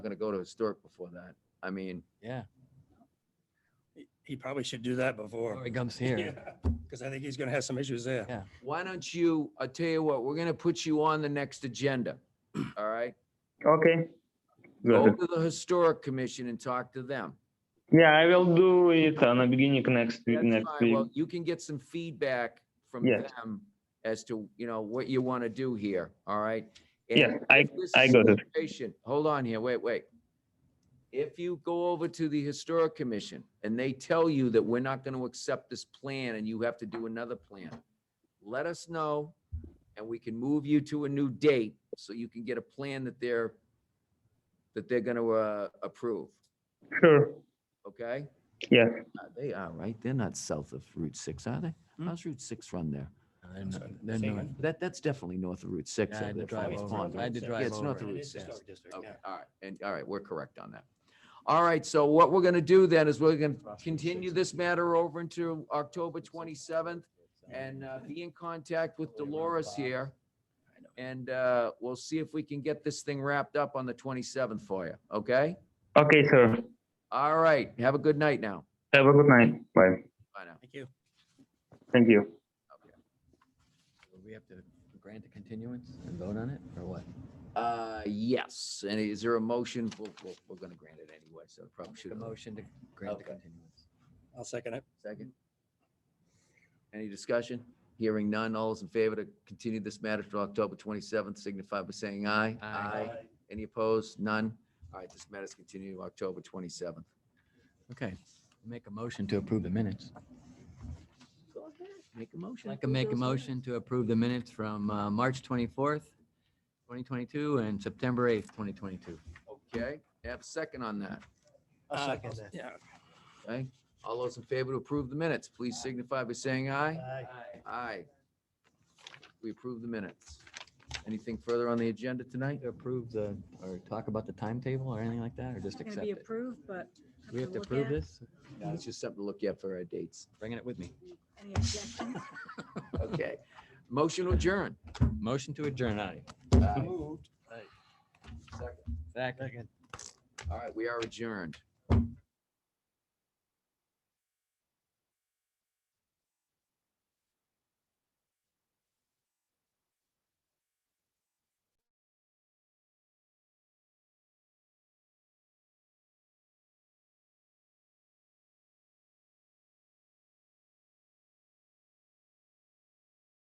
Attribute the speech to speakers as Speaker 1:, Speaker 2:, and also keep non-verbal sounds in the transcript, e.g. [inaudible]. Speaker 1: gonna go to historic before that. I mean,
Speaker 2: Yeah,
Speaker 3: He- He probably should do that before.
Speaker 2: before it [laughs] comes here.
Speaker 3: Because I think he's gonna have some issues there.
Speaker 2: Oh, Yeah.
Speaker 1: why don't you, I'll tell you what, we're gonna put you on the next agenda, all right?
Speaker 4: Okay. Got
Speaker 1: Go
Speaker 4: it.
Speaker 1: to the historic commission and talk to them.
Speaker 4: Yeah, I will do it on the beginning next week.
Speaker 1: That's
Speaker 4: Next
Speaker 1: fine.
Speaker 4: week.
Speaker 1: Well, you can get some feedback from
Speaker 4: Yes.
Speaker 1: them as to, you know, what you want to do here, all right? And
Speaker 4: yeah, I
Speaker 1: if this
Speaker 4: I got it.
Speaker 1: situation- Hold on here, wait, wait. If you go over to the Historic Commission and they tell you that we're not going to accept this plan and you have to do another plan, let us know and we can move you to a new date so you can get a plan that they're, that they're going to approve,
Speaker 4: Sure.
Speaker 1: okay?
Speaker 4: Yes.
Speaker 1: Uh, They are, right? They're not south of Route 6, are they?
Speaker 3: Hmm.
Speaker 1: How's Route 6 run there?
Speaker 2: And
Speaker 3: Sorry,
Speaker 2: then
Speaker 3: say
Speaker 2: no-
Speaker 3: again?
Speaker 1: That, that's definitely north of Route 6.
Speaker 2: Yeah, I
Speaker 1: over
Speaker 2: had to
Speaker 1: there,
Speaker 2: drive
Speaker 1: Farmers
Speaker 2: over.
Speaker 1: Pond,
Speaker 2: I had to
Speaker 1: right?
Speaker 2: drive
Speaker 1: Yeah, it's
Speaker 2: over
Speaker 1: north of
Speaker 2: it.
Speaker 1: Route
Speaker 3: It's
Speaker 1: 6.
Speaker 3: historic district,
Speaker 1: Okay,
Speaker 3: yeah.
Speaker 1: all right, and, all right, we're correct on that. All right, so what we're gonna do then is we're gonna continue this matter over into October twenty-seventh and uh, be in contact with Dolores here. And uh, we'll see if we can get this thing wrapped up on the twenty-seventh for you, okay?
Speaker 4: Okay, sir.
Speaker 1: All right, have a good night now.
Speaker 4: Have a good night. Bye.
Speaker 1: Bye now.
Speaker 3: Thank you.
Speaker 4: Thank you.
Speaker 2: Would We have to grant a continuance and vote on it or what?
Speaker 1: Uh, yes, and is there a motion? We'll, we'll, we're gonna grant it anyway, so probably should
Speaker 2: The
Speaker 1: have.
Speaker 2: motion to grant the
Speaker 1: Okay.
Speaker 2: continuance.
Speaker 3: I'll second it.
Speaker 1: Second. Any discussion? Hearing none, all those in favor to continue this matter to October 27th signify by saying aye.
Speaker 2: Aye.
Speaker 1: Any opposed? None? All right, this matter's continued to October 27th.
Speaker 2: Okay, make a motion to approve the minutes.
Speaker 1: Make a
Speaker 2: I'd
Speaker 1: motion.
Speaker 2: like to make a motion to approve the minutes from uh, March 24th, 2022 and September 8th, 2022.
Speaker 1: Okay, have a second on that,
Speaker 3: Uh,
Speaker 2: second that.
Speaker 3: Yeah.
Speaker 1: okay? All those in favor to approve the minutes, please signify by saying aye. Aye. We approve the minutes. Anything further on the agenda tonight?
Speaker 2: To approve the, or talk about the timetable or anything like that, or just
Speaker 5: It's not
Speaker 2: accept
Speaker 5: gonna be
Speaker 2: it?
Speaker 5: approved, but.
Speaker 2: Do we have to
Speaker 5: look
Speaker 2: approve
Speaker 5: at
Speaker 2: this?
Speaker 1: It's just something to look at for our dates.
Speaker 2: Bringing it with me.
Speaker 5: Any objections?
Speaker 1: Okay. Motion to adjourn.
Speaker 2: Motion to adjourn, aye. Uh,
Speaker 3: Moved.
Speaker 1: Second.
Speaker 2: Second.
Speaker 1: All right, we are adjourned.